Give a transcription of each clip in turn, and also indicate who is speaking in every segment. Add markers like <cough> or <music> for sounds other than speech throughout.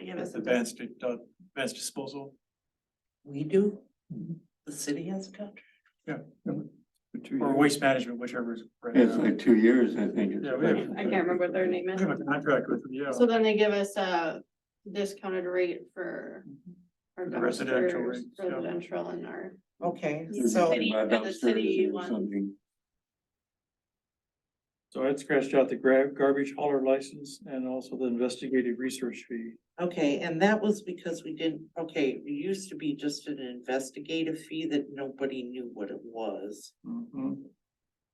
Speaker 1: Yeah,
Speaker 2: That's
Speaker 1: that's,
Speaker 2: advanced, uh, advanced disposal.
Speaker 1: we do, the city has a contract.
Speaker 3: Mm-hmm.
Speaker 4: For two
Speaker 2: Or
Speaker 4: years.
Speaker 2: waste management, whichever is. right
Speaker 4: It's
Speaker 2: now.
Speaker 4: like two years, I think. it's
Speaker 2: Yeah, we have-
Speaker 4: actually-
Speaker 5: I can't remember what their name
Speaker 2: We
Speaker 5: is.
Speaker 2: have a contract with, them, yeah,
Speaker 5: So
Speaker 3: Oh.
Speaker 5: then they give us a discounted rate for our
Speaker 2: The residential
Speaker 5: dumpsters,
Speaker 2: rates, yeah.
Speaker 5: residential and our.
Speaker 1: Okay,
Speaker 5: Yeah.
Speaker 1: so,
Speaker 5: City-
Speaker 4: About
Speaker 5: the city
Speaker 4: dumpsters or
Speaker 5: one.
Speaker 4: something.
Speaker 3: So I'd scratched out the grab, garbage hauler license and also the investigative research fee.
Speaker 1: okay, and that was because we didn't, okay, it used to be just an investigative fee that nobody knew what it was.
Speaker 2: Mhm.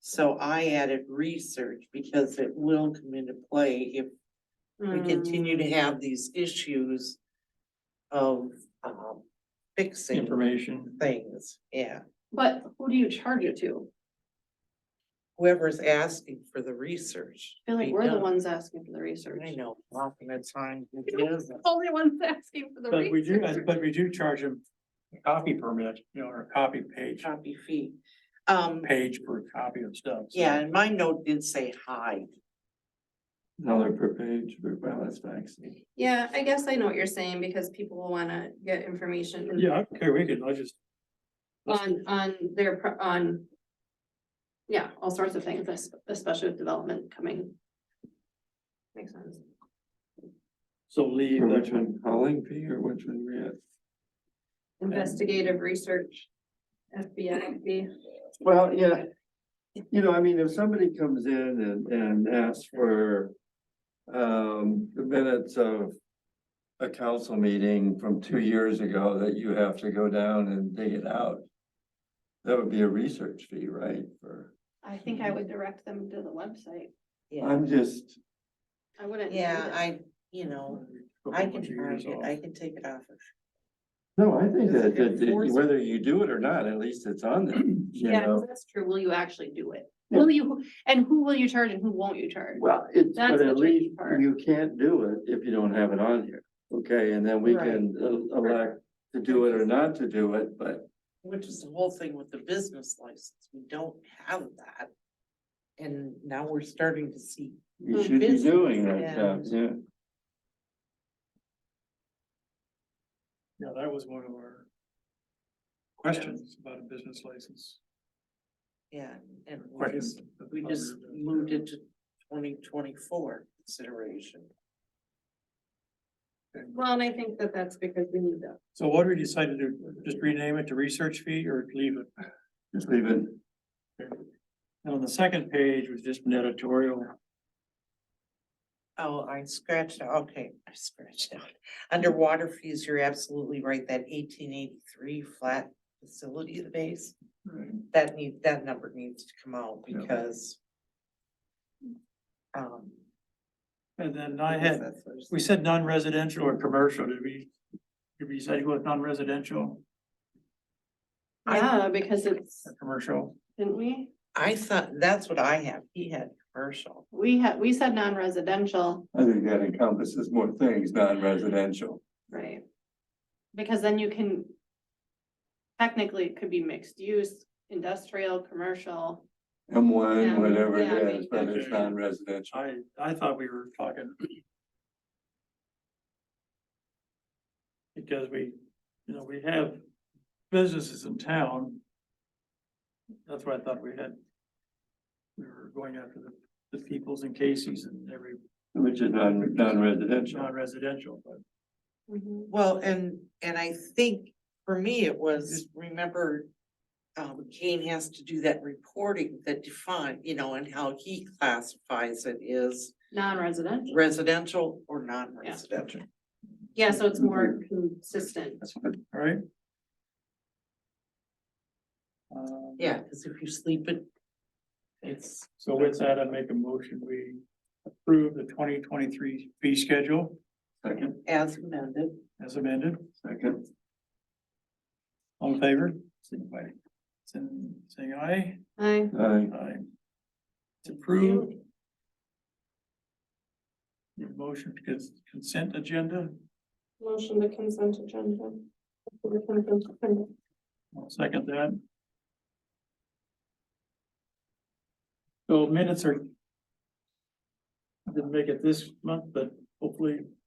Speaker 1: So I added research because it will come into play if we
Speaker 5: mm.
Speaker 1: continue to have these issues of, um, fixing
Speaker 3: Information.
Speaker 1: things, yeah.
Speaker 5: But who do you charge it to?
Speaker 1: Whoever's asking for the research.
Speaker 5: I feel like
Speaker 1: be
Speaker 5: we're the
Speaker 1: done.
Speaker 5: ones asking for the research.
Speaker 1: I know, often it's time it is.
Speaker 5: <laughs> Only ones asking for the
Speaker 3: But we do,
Speaker 5: research.
Speaker 3: but we do charge them a copy permit, you know, or a copy page,
Speaker 1: Copy fee. Um,
Speaker 3: page per copy of stuff. so-
Speaker 1: yeah, and my note did say hi.
Speaker 4: Dollar per page, for well, that's vaccine.
Speaker 5: Yeah, I guess I know what you're saying because people will wanna get information
Speaker 3: Yeah, okay, we can, I just,
Speaker 5: on, on their, pro- on. Yeah, all sorts of things, es- especially with development coming. Makes sense.
Speaker 3: so leave
Speaker 4: For which
Speaker 3: that
Speaker 4: one, hauling fee or which one we at?
Speaker 5: Investigative research, FBI.
Speaker 4: Well, yeah, you know, I mean, if somebody comes in and, and asks for um, the minutes of a council meeting from two years ago that you have to go down and dig it out, that would be a research fee, right? For,
Speaker 5: I think
Speaker 1: Hmm.
Speaker 5: I would direct them to the website.
Speaker 1: Yeah,
Speaker 4: I'm just,
Speaker 5: I wouldn't. need
Speaker 1: yeah,
Speaker 5: it.
Speaker 1: I, you know, I can find it, I can take it off.
Speaker 4: no, I think that, that- that
Speaker 1: Enforce-
Speaker 4: whether you do it or not, at least it's on there, you
Speaker 5: Yeah, 'cause
Speaker 4: know?
Speaker 5: that's true. Will you actually do it?
Speaker 4: Yeah.
Speaker 5: Will you, and who will you charge and who won't you charge?
Speaker 4: Well, it's,
Speaker 5: That's
Speaker 4: but
Speaker 5: the
Speaker 4: at
Speaker 5: tricky
Speaker 4: least
Speaker 5: part.
Speaker 4: you can't do it if you don't have it on here, okay, and then we
Speaker 1: Right.
Speaker 4: can el- elect to do it or not to do it, but.
Speaker 1: Which is the whole thing with the business license, we don't have that. And now we're starting to see,
Speaker 4: We should be
Speaker 1: Business,
Speaker 4: doing that
Speaker 1: yeah.
Speaker 4: stuff, yeah,
Speaker 3: Yeah, that was one of our questions about a business license.
Speaker 1: yeah, and we
Speaker 3: Questions.
Speaker 1: just, we just moved it to twenty twenty-four consideration.
Speaker 5: Well, and I think that that's because we need them.
Speaker 3: So what we decided to do, just rename it to research fee or leave it?
Speaker 4: just leave it,
Speaker 3: And on the second page was just an editorial.
Speaker 1: Oh, I scratched, out. okay, I scratched out. Underwater fees, you're absolutely right, that eighteen eighty-three flat facility base. That need, that number needs to come out
Speaker 4: Yeah.
Speaker 1: because. Um.
Speaker 3: And then I
Speaker 1: because
Speaker 3: had
Speaker 1: that's what it's-
Speaker 3: We said non-residential or commercial, did we, did we say with non-residential
Speaker 1: I-
Speaker 5: Yeah, uh, because it's,
Speaker 3: or commercial?
Speaker 5: didn't we?
Speaker 1: I thought, that's what I have, he had commercial,
Speaker 5: We had, we said non-residential,
Speaker 4: I think that encompasses more things, non-residential.
Speaker 5: right? Because then you can. Technically, it could be mixed use, industrial, commercial.
Speaker 4: M one,
Speaker 5: Yeah,
Speaker 4: whatever
Speaker 5: yeah,
Speaker 4: it is,
Speaker 5: we-
Speaker 4: but it's
Speaker 3: Okay.
Speaker 4: non-residential.
Speaker 3: I, I thought we were talking. Because we, you know, we have businesses in town. That's why I thought we had. We were going after the, the peoples and Casey's and every
Speaker 4: Which is non, non-residential.
Speaker 3: non-residential, but.
Speaker 5: Mm-hmm.
Speaker 1: well, and, and I think for me it was, remember. Um, Kane has to do that reporting that define, you know, and how he classifies it is
Speaker 5: Non-residential,
Speaker 1: residential or non-residential.
Speaker 5: yeah, so it's more consistent.
Speaker 4: That's what,
Speaker 3: All right? Um,
Speaker 1: Yeah, cause if you sleep it, it's,
Speaker 3: So with that, I make a motion, we approve the twenty twenty-three fee schedule
Speaker 4: second,
Speaker 1: as amended,
Speaker 3: as amended.
Speaker 4: second,
Speaker 3: All in favor? Signify by saying saying aye.
Speaker 5: I,
Speaker 4: aye.
Speaker 3: Aye. It's approved. Your motion to cons- consent agenda,
Speaker 5: motion to consent agenda. Consent agenda.
Speaker 3: I'll second that. So minutes are. I Didn't make it this month, but hopefully